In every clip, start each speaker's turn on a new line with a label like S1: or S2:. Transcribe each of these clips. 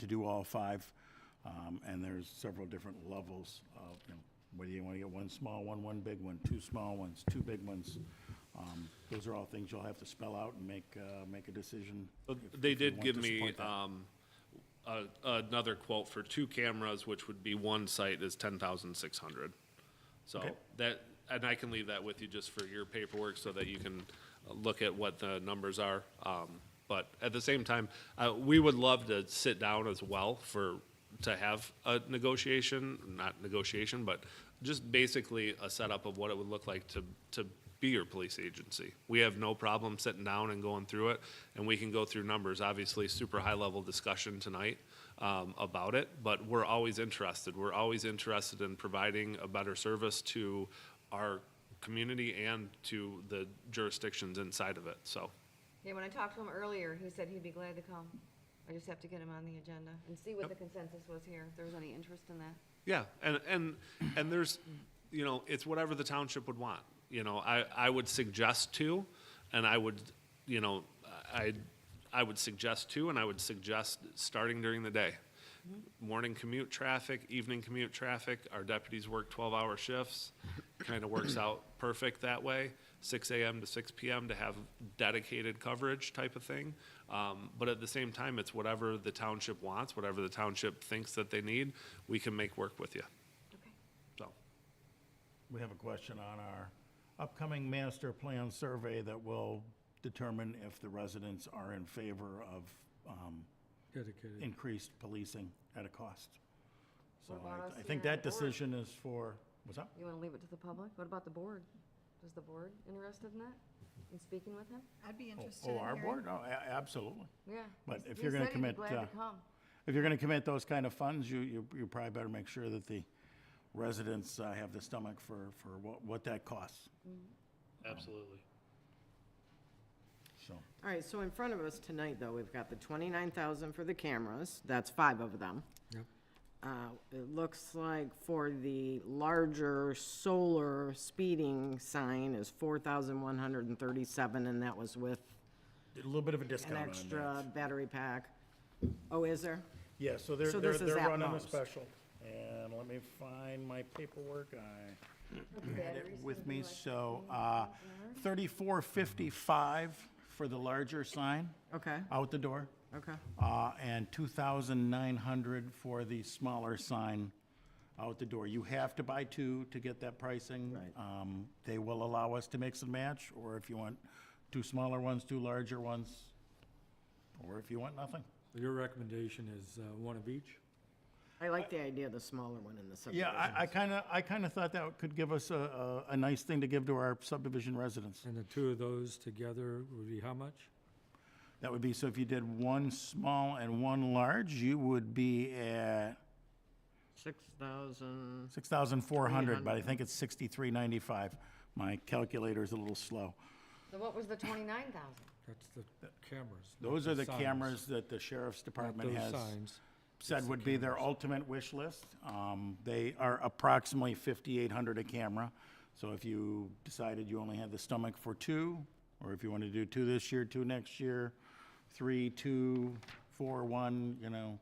S1: to do all five. Um, And there's several different levels of, you know, whether you want to get one small one, one big one, two small ones, two big ones. Um, Those are all things you'll have to spell out and make, uh, make a decision.
S2: But
S1: if-
S2: They
S1: if you
S2: did
S1: want
S2: give
S1: to
S2: me
S1: support that.
S2: um, a- another quote for two cameras, which would be one site is ten thousand six hundred. So
S1: Okay.
S2: that, and I can leave that with you just for your paperwork so that you can uh, look at what the numbers are. Um, But at the same time, uh, we would love to sit down as well for, to have a negotiation, not negotiation, but just basically a setup of what it would look like to, to be your police agency. We have no problem sitting down and going through it, and we can go through numbers, obviously, super high-level discussion tonight um, about it, but we're always interested. We're always interested in providing a better service to our community and to the jurisdictions inside of it, so.
S3: Yeah, when I talked to him earlier, he said he'd be glad to come. I just have to get him on the agenda and see what the consensus was here, if there was any interest in that.
S2: Yeah, and, and, and there's, you know, it's whatever the township would want. You know, I, I would suggest two, and I would, you know, I, I would suggest two, and I would suggest starting during the day. Morning commute traffic, evening commute traffic, our deputies work twelve-hour shifts, kind of works out perfect that way. Six AM to six PM to have dedicated coverage type of thing. Um, but at the same time, it's whatever the township wants, whatever the township thinks that they need, we can make work with you,
S3: Okay.
S2: so.
S1: We have a question on our upcoming master plan survey that will determine if the residents are in favor of um,
S4: Dedicated.
S1: increased policing at a cost. So
S3: What about
S1: I-
S3: us
S1: I think
S3: here on
S1: that
S3: the board?
S1: decision is for, what's up?
S3: You want to leave it to the public? What about the board? Is the board interested in that, in speaking with him?
S5: I'd be interested in
S1: Oh,
S5: hearing.
S1: our board? Oh, a- absolutely.
S3: Yeah.
S1: But
S3: he-
S1: if
S3: he
S1: you're gonna
S3: said he'd be
S1: commit,
S3: Glad
S1: uh,
S3: to come.
S1: If you're going to commit those kind of funds, you, you you probably better make sure that the residents uh, have the stomach for, for what, what that costs,
S2: Absolutely.
S1: so.
S6: All right, so in front of us tonight, though, we've got the twenty-nine thousand for the cameras, that's five of them.
S4: Yep.
S6: Uh, It looks like for the larger solar speeding sign is four thousand one hundred and thirty-seven, and that was with
S1: A little bit of a
S6: an
S1: discount on that.
S6: extra battery pack. Oh, is there?
S1: Yeah, so they're,
S6: So
S1: they're,
S6: this is
S1: they're
S6: at
S1: running a
S6: most.
S1: special. And let me find my paperwork. I had it with me, so, uh, thirty-four fifty-five for the larger sign
S6: Okay,
S1: out the door.
S6: okay.
S1: Uh, and two thousand nine hundred for the smaller sign out the door. You have to buy two to get that pricing.
S6: Right.
S1: Um, they will allow us to mix and match, or if you want two smaller ones, two larger ones, or if you want nothing.
S4: Your recommendation is uh, one of each?
S6: I like the idea of the smaller one in the subdivision.
S1: Yeah, I, I kind of, I kind of thought that could give us a, a, a nice thing to give to our subdivision residents.
S4: And the two of those together would be how much?
S1: That would be, so if you did one small and one large, you would be at
S6: Six thousand.
S1: six thousand four hundred, but I think it's sixty-three ninety-five. My calculator's a little slow.
S3: So what was the twenty-nine thousand?
S4: That's the cameras. not
S1: Those are the
S4: signs,
S1: cameras that the sheriff's
S4: not
S1: department
S4: those
S1: has
S4: signs.
S1: said would be their ultimate wish list. Um, they are approximately fifty-eight hundred a camera. So if you decided you only had the stomach for two, or if you want to do two this year, two next year, three, two, four, one, you know,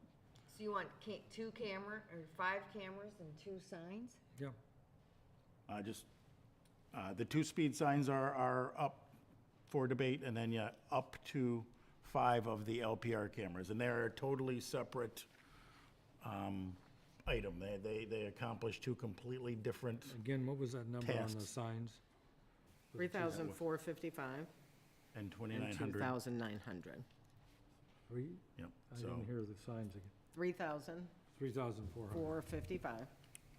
S3: So you want ca- two camera, or five cameras and two signs?
S4: Yeah,
S1: uh, just, uh, the two speed signs are, are up for debate, and then, yeah, up to five of the LPR cameras, and they're a totally separate, um, item. They, they, they accomplish two completely different
S4: again, what was that number on the
S1: Tasks.
S4: signs?
S6: Three thousand four fifty-five
S1: and
S6: and
S1: twenty-nine
S6: two
S1: hundred.
S6: thousand nine hundred.
S4: Three,
S1: Yep,
S4: I
S1: so,
S4: didn't hear the signs again.
S6: Three thousand
S4: Three thousand four hundred,
S6: four fifty-five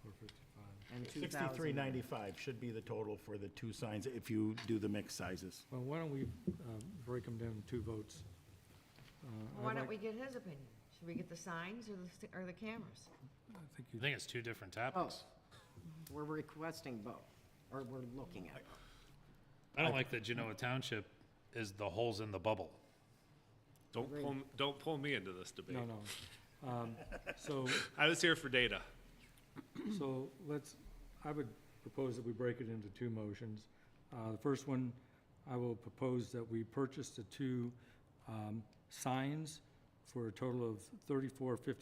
S4: four fifty-five.
S6: and two thousand.
S1: sixty-three ninety-five should be the total for the two signs if you do the mix sizes.
S4: Well, why don't we uh, break them down in two votes? Uh, I'd
S3: Why don't
S4: like-
S3: we get his opinion? Should we get the signs or the, st- or the cameras?
S4: I think
S7: I
S4: you,
S7: think it's two different
S6: Oh,
S7: topics.
S6: we're requesting both, or we're looking at.
S7: I don't like that Genoa Township is the holes in the bubble.
S2: Don't pull, m- don't pull me into this debate.
S4: no, no. Um, So,
S2: I was here for data.
S4: so let's, I would propose that we break it into two motions. Uh, The first one, I will propose that we purchase the two um, signs for a total of thirty-four fifty